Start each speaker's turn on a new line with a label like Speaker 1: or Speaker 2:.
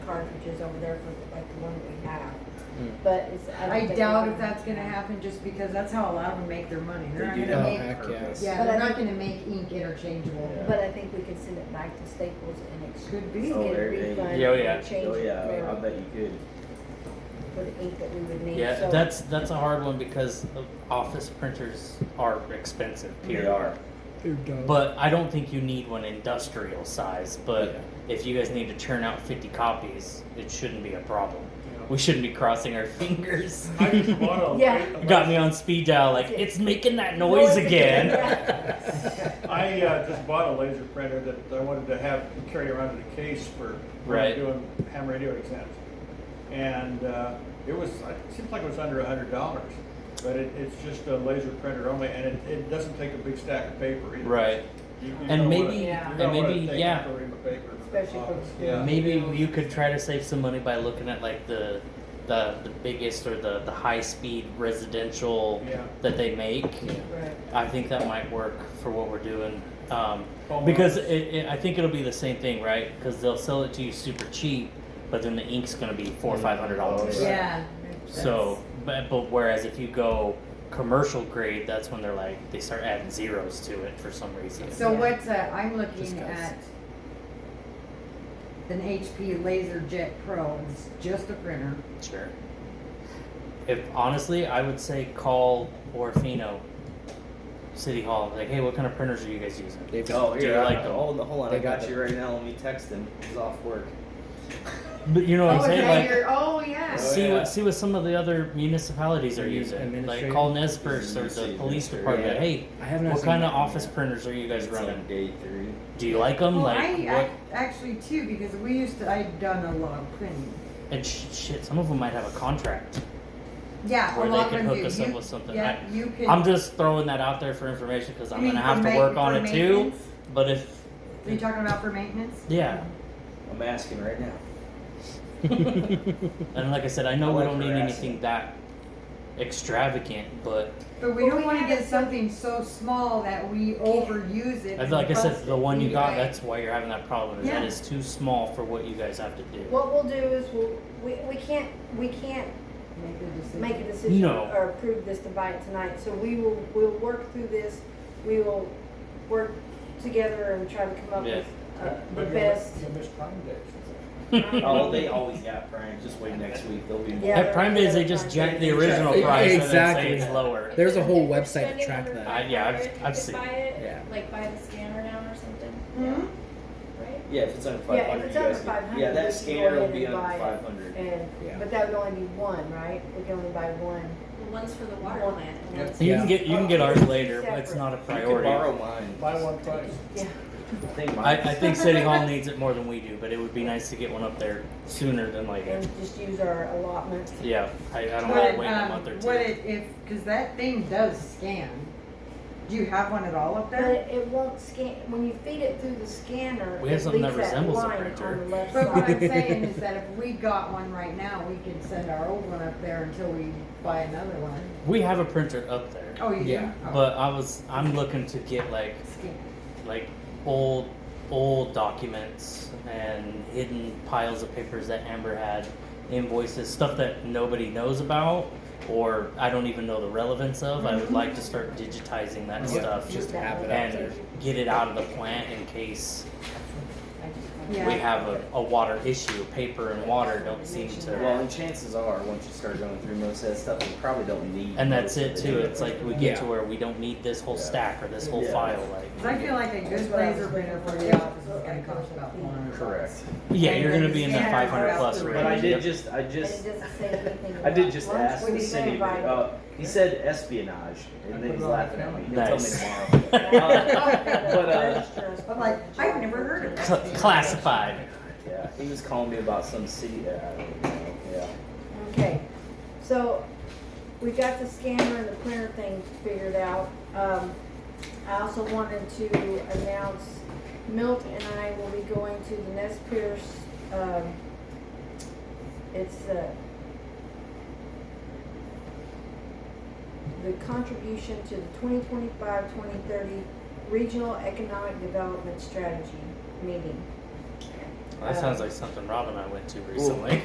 Speaker 1: pictures over there for like the one that we have,
Speaker 2: Mm.
Speaker 1: but it's. don't
Speaker 3: I
Speaker 1: think
Speaker 3: doubt
Speaker 1: we-
Speaker 3: if that's gonna happen just because that's how a lot of them make their money. They're not
Speaker 4: They do
Speaker 3: gonna
Speaker 4: that
Speaker 2: Oh,
Speaker 3: make,
Speaker 4: on
Speaker 2: heck yeah.
Speaker 4: purpose.
Speaker 3: yeah,
Speaker 1: But
Speaker 3: they're
Speaker 1: I
Speaker 3: not
Speaker 1: think-
Speaker 3: gonna make ink interchangeable.
Speaker 1: But I think we could send it back to Staples and it's.
Speaker 3: Could be.
Speaker 1: Get
Speaker 4: Oh,
Speaker 1: a
Speaker 4: there it is.
Speaker 1: refund
Speaker 2: Yeah, oh,
Speaker 1: and
Speaker 2: yeah.
Speaker 1: Change
Speaker 4: Oh yeah,
Speaker 1: it
Speaker 4: I
Speaker 1: for-
Speaker 4: bet you could.
Speaker 1: for the ink that we would need.
Speaker 2: Yeah,
Speaker 1: So-
Speaker 2: that's that's a hard one because of- office printers are expensive.
Speaker 4: They
Speaker 2: Period.
Speaker 4: are.
Speaker 2: But I don't think you need one industrial size. But if you guys need to churn out 50 copies, it shouldn't be a problem. We shouldn't be crossing our fingers.
Speaker 5: I just bought a.
Speaker 1: Yeah.
Speaker 5: I-
Speaker 2: Got me on speed dial, like it's making that noise,
Speaker 1: Noise
Speaker 2: again.
Speaker 1: again,
Speaker 5: I uh, just bought a laser printer that I wanted to have carry around in a case for when I'm
Speaker 2: Right.
Speaker 5: doing ham radio exams. And uh, it was, it seems like it was under a hundred dollars, but it, it's just a laser printer only, and it, it doesn't take a big stack of paper either.
Speaker 2: Right.
Speaker 5: You- you
Speaker 2: And
Speaker 5: don't wanna-
Speaker 2: maybe-
Speaker 5: you
Speaker 1: Yeah.
Speaker 5: don't
Speaker 2: and
Speaker 5: wanna
Speaker 2: maybe-
Speaker 5: take
Speaker 2: yeah.
Speaker 5: a ream of paper to the
Speaker 1: Especially for-
Speaker 5: office. Yeah.
Speaker 2: Maybe you could try to save some money by looking at like the the, the biggest or the, the high speed residential
Speaker 5: Yeah.
Speaker 2: that they make.
Speaker 1: Right.
Speaker 2: I think that might work for what we're doing. Um,
Speaker 5: Home
Speaker 2: because
Speaker 5: runs.
Speaker 2: it, it, I think it'll be the same thing, right? Because they'll sell it to you super cheap, but then the ink's going to be four or five hundred dollars.
Speaker 5: Right.
Speaker 3: Yeah.
Speaker 2: So, but, but whereas if you go commercial grade, that's when they're like they start adding zeros to it for some reason.
Speaker 3: that's- So what's, uh, I'm
Speaker 2: Just
Speaker 3: looking
Speaker 2: guys.
Speaker 3: at an HP LaserJet Pro. It's just a printer.
Speaker 2: Sure. If honestly, I would say call Orfino City Hall. Like, hey, what kind of printers are you guys using?
Speaker 4: They've
Speaker 2: got-
Speaker 4: oh,
Speaker 2: Do you
Speaker 4: here, I-
Speaker 2: like them?
Speaker 4: hold on, hold on.
Speaker 2: They
Speaker 4: I
Speaker 2: got
Speaker 4: got,
Speaker 2: the-
Speaker 4: you right now. Let me text him. He's off work.
Speaker 2: But you know what I'm
Speaker 3: oh,
Speaker 2: saying?
Speaker 3: and
Speaker 2: Like,
Speaker 3: you're- oh, yeah.
Speaker 4: Oh,
Speaker 2: see
Speaker 4: yeah.
Speaker 2: what see what some of the other municipalities are
Speaker 6: Admin-
Speaker 2: using. Like,
Speaker 6: administrative?
Speaker 2: call Nespers or the
Speaker 4: Administrative,
Speaker 2: police
Speaker 4: sure,
Speaker 2: department.
Speaker 4: yeah.
Speaker 2: Hey,
Speaker 6: I have not
Speaker 2: what
Speaker 6: seen
Speaker 2: kind of
Speaker 6: that one
Speaker 2: office
Speaker 6: yet.
Speaker 2: printers are you guys
Speaker 4: It's
Speaker 2: running?
Speaker 4: on day three.
Speaker 2: Do you like them?
Speaker 3: Well,
Speaker 2: like,
Speaker 3: I,
Speaker 2: what?
Speaker 3: I actually too because we used to. I'd done a lot of printing.
Speaker 2: and sh- shit, some of them might have a contract.
Speaker 3: Yeah,
Speaker 2: Or
Speaker 3: a
Speaker 2: they
Speaker 3: lot
Speaker 2: could
Speaker 3: of them
Speaker 2: hook
Speaker 3: do.
Speaker 2: us
Speaker 3: you,
Speaker 2: up with something.
Speaker 3: Yeah, you can.
Speaker 2: I'm just throwing that out there for information because I'm
Speaker 3: You mean
Speaker 2: gonna have
Speaker 3: for
Speaker 2: to
Speaker 3: ma-
Speaker 2: work on
Speaker 3: for
Speaker 2: it too.
Speaker 3: maintenance?
Speaker 2: But if
Speaker 3: Are you talking about for maintenance?
Speaker 2: yeah,
Speaker 4: I'm asking right now.
Speaker 2: And like I said, I know
Speaker 4: I
Speaker 2: we
Speaker 4: like
Speaker 2: don't need
Speaker 4: harassing.
Speaker 2: anything that extravagant, but
Speaker 3: But we
Speaker 1: Well,
Speaker 3: don't
Speaker 1: we
Speaker 3: want to
Speaker 1: have
Speaker 3: get
Speaker 1: it-
Speaker 3: something so small that we overuse it.
Speaker 2: I-
Speaker 3: and
Speaker 2: like I said,
Speaker 3: bust
Speaker 2: the
Speaker 3: it.
Speaker 2: one you got,
Speaker 3: Right.
Speaker 2: that's why you're having that problem. Is that
Speaker 3: Yeah.
Speaker 2: is too small for what you guys have to do.
Speaker 1: What we'll do is we'll, we, we can't, we can't
Speaker 3: Make the decision.
Speaker 1: make a decision
Speaker 2: No.
Speaker 1: or approve this to buy it tonight, so we will, we'll work through this. We will work together and try to come up
Speaker 2: Yeah.
Speaker 1: with uh, the
Speaker 5: But you
Speaker 1: best.
Speaker 5: You missed Prime Days.
Speaker 4: Oh, they always got Prime. Just wait next week. They'll be more.
Speaker 1: Yeah.
Speaker 2: At Prime Days, they just jack the original
Speaker 6: Yeah,
Speaker 2: price and then
Speaker 6: exactly.
Speaker 2: say it's lower.
Speaker 6: There's a whole
Speaker 7: If we're
Speaker 6: website to
Speaker 7: spending
Speaker 6: track
Speaker 7: under
Speaker 6: that.
Speaker 2: I- yeah, I've-
Speaker 7: 500, you
Speaker 2: I've
Speaker 7: could
Speaker 2: seen
Speaker 7: Buy it,
Speaker 6: Yeah.
Speaker 7: like buy the scanner now or something.
Speaker 3: Mhm.
Speaker 7: Right?
Speaker 4: Yeah, if it's under
Speaker 1: Yeah, if
Speaker 4: 500,
Speaker 1: it's
Speaker 4: you
Speaker 1: under
Speaker 4: guys can-
Speaker 1: 500,
Speaker 4: yeah,
Speaker 1: we
Speaker 4: that
Speaker 1: can
Speaker 4: scanner
Speaker 1: go
Speaker 4: will
Speaker 1: ahead
Speaker 4: be
Speaker 1: and
Speaker 4: under
Speaker 1: buy it.
Speaker 4: 500.
Speaker 1: And,
Speaker 6: Yeah.
Speaker 1: but that would only be one, right? We can only buy one.
Speaker 7: Well, one's for the water
Speaker 1: Well,
Speaker 7: plant. and
Speaker 5: yeah.
Speaker 7: one's-
Speaker 2: You
Speaker 6: Yeah.
Speaker 2: can get you can get ours later, but it's
Speaker 1: Separate.
Speaker 2: not a
Speaker 4: You can
Speaker 2: priority.
Speaker 4: borrow mine.
Speaker 5: Buy one twice.
Speaker 1: Yeah.
Speaker 4: I think
Speaker 2: I,
Speaker 4: mine.
Speaker 2: I think City Hall needs it more than we do, but it would be nice to get one up there sooner than later.
Speaker 1: And just use our allotment.
Speaker 2: Yeah, I, I don't
Speaker 3: What
Speaker 2: want
Speaker 3: it,
Speaker 2: to wait a
Speaker 3: um,
Speaker 2: month or two.
Speaker 3: What it, if, because that thing does scan. Do you have one at all up
Speaker 1: But
Speaker 3: there?
Speaker 1: it- it won't scan, when you feed it through the scanner,
Speaker 2: We have
Speaker 1: it
Speaker 2: something that
Speaker 1: leaves that
Speaker 2: resembles a
Speaker 1: line on
Speaker 2: printer.
Speaker 1: the left
Speaker 3: But what I'm
Speaker 1: side.
Speaker 3: saying is that if we got one right now, we could send our old one up there until we buy another one.
Speaker 2: we have a printer up there,
Speaker 3: Oh, you do?
Speaker 6: Yeah,
Speaker 3: Oh,
Speaker 2: but I was I'm looking to get like
Speaker 3: Scan.
Speaker 2: like old old documents and hidden piles of papers that Amber had, invoices, stuff that nobody knows about or I don't even know the relevance of. I would like to start digitizing that
Speaker 6: Yeah,
Speaker 2: stuff
Speaker 6: Just have it out
Speaker 2: and
Speaker 6: there.
Speaker 2: get it out of the plant in case
Speaker 3: Yeah.
Speaker 2: we have a, a water issue. Paper and water don't seem to
Speaker 4: Well, and chances are, once you start going through most of that stuff, you probably don't need.
Speaker 2: and that's it
Speaker 4: most of
Speaker 2: too. It's like we get to
Speaker 6: Yeah.
Speaker 2: where we don't need this whole
Speaker 4: Yeah.
Speaker 2: stack or this whole
Speaker 4: Yeah.
Speaker 2: file like
Speaker 3: 'Cause I feel like a good laser printer for the office is gonna cost about four hundred
Speaker 4: Correct.
Speaker 2: Yeah,
Speaker 3: And
Speaker 2: you're
Speaker 3: then
Speaker 2: gonna be in that
Speaker 3: scan
Speaker 2: five hundred
Speaker 3: out
Speaker 2: plus
Speaker 3: the
Speaker 2: range.
Speaker 4: But I
Speaker 2: Yep.
Speaker 4: did just, I
Speaker 1: But
Speaker 4: just,
Speaker 1: it doesn't say anything
Speaker 4: I did
Speaker 1: about
Speaker 4: just
Speaker 1: lunch.
Speaker 4: ask
Speaker 1: We
Speaker 4: the
Speaker 1: didn't
Speaker 4: city,
Speaker 1: invite
Speaker 4: uh, he said espionage, and
Speaker 5: I
Speaker 4: then
Speaker 5: put
Speaker 4: he's
Speaker 5: it on
Speaker 4: laughing
Speaker 5: my
Speaker 4: at me, he'll tell me
Speaker 2: Nice.
Speaker 4: tomorrow.
Speaker 1: them.
Speaker 4: But, uh,
Speaker 3: I'm like, I've never heard of
Speaker 2: Cl- classified.
Speaker 4: Yeah, he was calling me about some city that I don't know, yeah.
Speaker 1: Okay, so we got the scanner and the printer thing figured out. Um, I also wanted to announce Milk and I will be going to the Nest Pierce, um, it's, uh, the contribution to the 2025-2030 Regional Economic Development Strategy meeting.
Speaker 2: That
Speaker 1: Uh,
Speaker 2: sounds like something Rob and I went to recently.